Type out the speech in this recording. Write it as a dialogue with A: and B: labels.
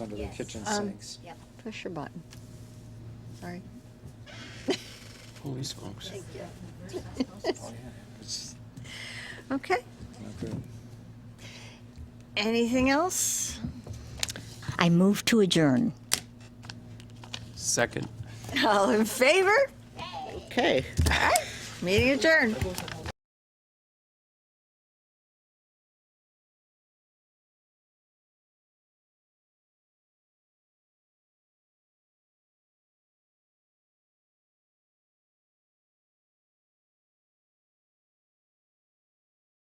A: under the
B: Yes.
A: kitchen
C: Um,
A: sinks.
B: Yep,
C: Push your button. Sorry.
D: Holy smokes.
B: thank you.
A: Oh, yeah, it's
C: Okay.
A: not good.
C: Anything else?
E: I move to adjourn.
D: Second.
C: All in favor?
D: Okay.
C: Meeting adjourned.